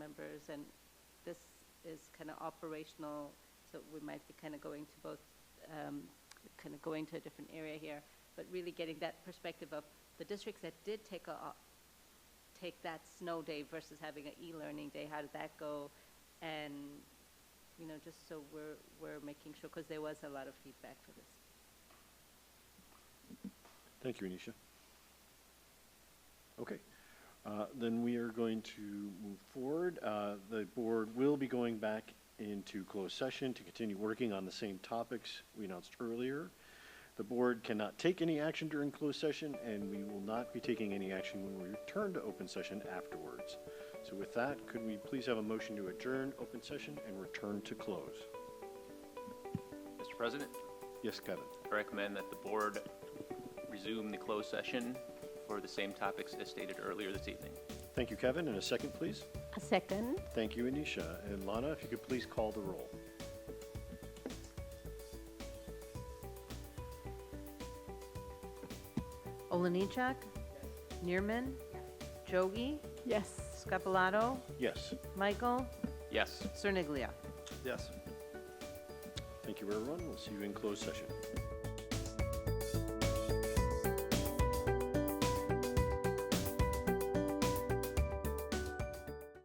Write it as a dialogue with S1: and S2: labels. S1: and this is kind of operational, so we might be kind of going to both, kind of going to a different area here, but really getting that perspective of the districts that did take a, take that snow day versus having an e-learning day, how did that go? And, you know, just so we're, we're making sure, because there was a lot of feedback for this.
S2: Thank you, Anisha. Okay, uh, then we are going to move forward. Uh, The board will be going back into closed session to continue working on the same topics we announced earlier. The board cannot take any action during closed session, and we will not be taking any action when we return to open session afterwards. So with that, could we please have a motion to adjourn open session and return to close?
S3: Mr. President,
S2: Yes, Kevin?
S3: I recommend that the board resume the closed session for the same topics as stated earlier this evening.
S2: Thank you, Kevin, and a second, please.
S1: A second?
S2: Thank you, Anisha. And Lana, if you could please call the roll.
S4: Olenichak? Neerman? Jogi? Yes. Scapalato?
S2: Yes.
S4: Michael?
S3: Yes.
S4: Cerniglia?
S2: Yes. Thank you, everyone. We'll see you in closed session.